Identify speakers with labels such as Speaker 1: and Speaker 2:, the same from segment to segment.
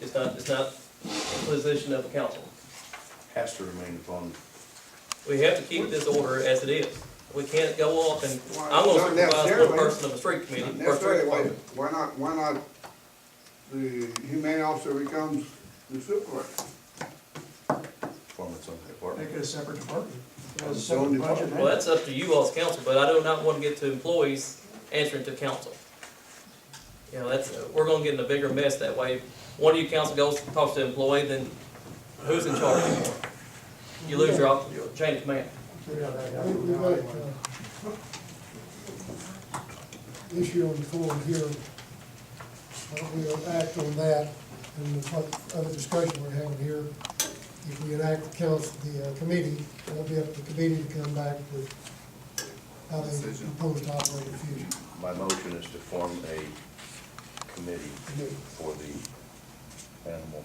Speaker 1: It's not, it's not a position of the council.
Speaker 2: Has to remain upon.
Speaker 1: We have to keep this order as it is. We can't go up and, I'm
Speaker 3: Well,
Speaker 1: gonna supervise one
Speaker 3: not necessarily.
Speaker 1: person of the street committee. or street
Speaker 3: Necessarily, why,
Speaker 1: department.
Speaker 3: why not, why not the humane officer becomes the supervisor?
Speaker 2: form its own department.
Speaker 4: Make it a separate department. It has a
Speaker 3: Its own
Speaker 4: separate budget.
Speaker 3: department.
Speaker 1: Well, that's up to you all as council, but I do not want to get to employees answering to council. You know, that's, we're gonna get in a bigger mess that way. One of you council goes, talks to the employee, then who's in charge anymore? You lose your, op- your chain of command.
Speaker 4: We got that
Speaker 5: We-
Speaker 4: happening
Speaker 5: We've
Speaker 4: now
Speaker 5: got
Speaker 4: anyway.
Speaker 5: an issue on the floor here. Why don't we act on that and what other discussion we're having here? If we enact the council, the uh, committee, it'll be up to the committee to come back with how they
Speaker 3: Decision.
Speaker 5: propose to operate in the future.
Speaker 2: My motion is to form a committee
Speaker 5: Committee.
Speaker 2: for the animal,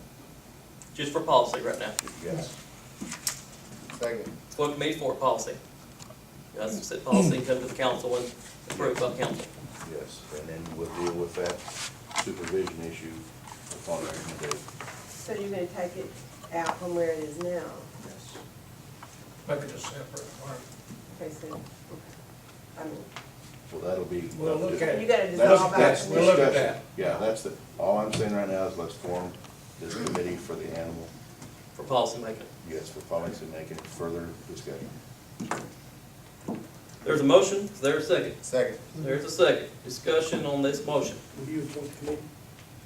Speaker 1: Just for policy right now.
Speaker 2: yes.
Speaker 3: Second.
Speaker 1: It's what committee's for, policy. You guys set policy, come to the council and approve by council.
Speaker 2: Yes, and then we'll deal with that supervision issue upon recommendation.
Speaker 6: So you're gonna take it out from where it is now?
Speaker 4: Make it a separate department.
Speaker 6: Okay, so, I mean,
Speaker 2: Well, that'll be.
Speaker 7: We'll look at it.
Speaker 6: you gotta
Speaker 2: That's,
Speaker 6: dissolve
Speaker 2: that's
Speaker 6: that.
Speaker 7: We'll look at
Speaker 2: discussion. Yeah, that's the, all I'm saying right now is let's form this committee for the animal,
Speaker 1: For policy making.
Speaker 2: yes, for policy making, further discussion.
Speaker 1: There's a motion, is there a second?
Speaker 3: Second.
Speaker 1: There's a second. Discussion on this motion.
Speaker 7: Will you appoint the committee?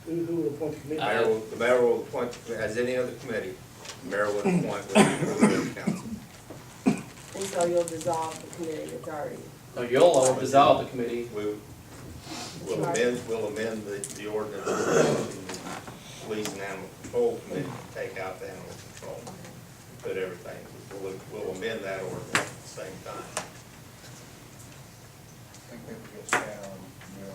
Speaker 7: Who, who will appoint the committee?
Speaker 1: I-
Speaker 8: Mayor will, the mayor will appoint, as any other committee, the mayor will appoint whatever the council.
Speaker 6: And so you'll dissolve the committee that's already,
Speaker 1: Now, you all will dissolve the committee.
Speaker 8: We will amend, will amend the, the ordinance, the police and animal control committee, to take out the animal control, put everything, we'll, we'll amend that ordinance at the same time.
Speaker 3: I think that gets down, you know,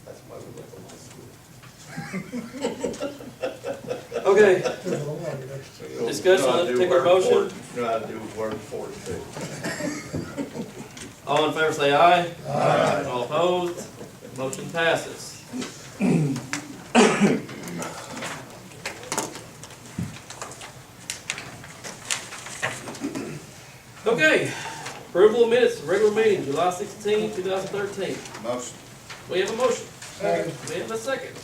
Speaker 3: confused.
Speaker 8: That's why we look at this.
Speaker 1: Okay,
Speaker 5: There's a lot of that.
Speaker 1: Discussion on that particular motion?
Speaker 8: No, I do word for it too.
Speaker 1: All in favor say aye. Aye. All opposed, motion passes. Okay, approval of minutes, regular meeting, July 16, thousand thirteen.
Speaker 3: Motion.
Speaker 1: We have a motion. We have a second.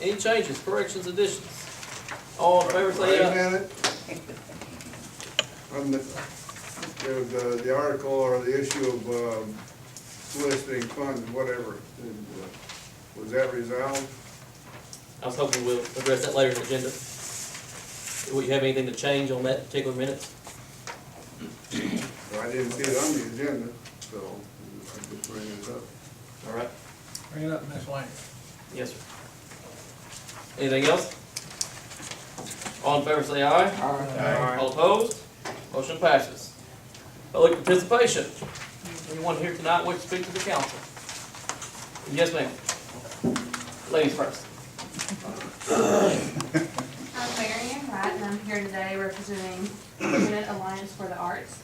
Speaker 1: Any changes, corrections, additions? All in favor
Speaker 3: Wait
Speaker 1: say
Speaker 3: a
Speaker 1: aye.
Speaker 3: minute. From the, there was, uh, the article or the issue of, um, soliciting funds, whatever, and, uh, was that resolved?
Speaker 1: I was hoping we'll address that later in the agenda. Would you have anything to change on that particular minutes?
Speaker 3: Well, I didn't see it on the agenda, so I'm just bringing it up.
Speaker 1: All right.
Speaker 4: Bring it up next line.
Speaker 1: Yes, sir. Anything else? All in favor say aye. All opposed? Motion passes. Public participation. Anyone here tonight wish to speak to the council? Yes, ma'am. Ladies first.
Speaker 9: I'm Mary Ann Wright, and I'm here today representing Student Alliance for the Arts.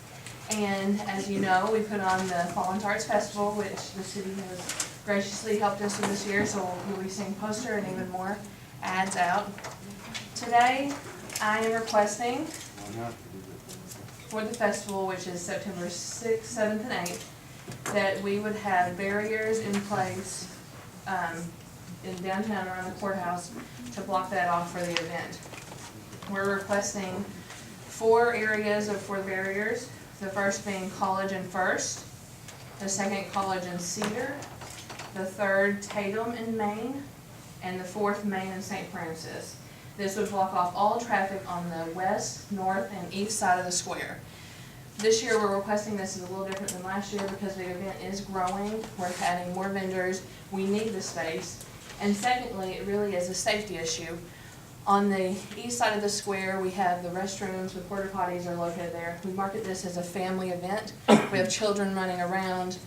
Speaker 9: And as you know, we put on the Fallens Arts Festival, which the city has graciously helped us with this year, so we'll be seeing poster and even more ads out. Today, I am requesting for the festival, which is September sixth, seventh, and eighth, that we would have barriers in place, um, in downtown around the courthouse to block that off for the event. We're requesting four areas of four barriers, the first being College and First, the second College and Cedar, the third Tatum and Main, and the fourth Main and St. Francis. This would block off all traffic on the west, north, and east side of the square. This year, we're requesting this is a little different than last year because the event is growing, we're adding more vendors, we need the space, and secondly, it really is a safety issue. On the east side of the square, we have the restrooms, the porta potties are located there. We market this as a family event. We have children running around.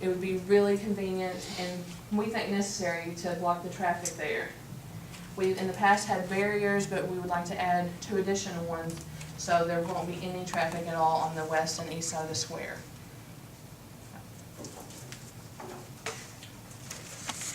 Speaker 9: It would be really convenient and we think necessary to block the traffic there. We've in the past had barriers, but we would like to add two additional ones, so there won't be any traffic at all on the west and east side of the square.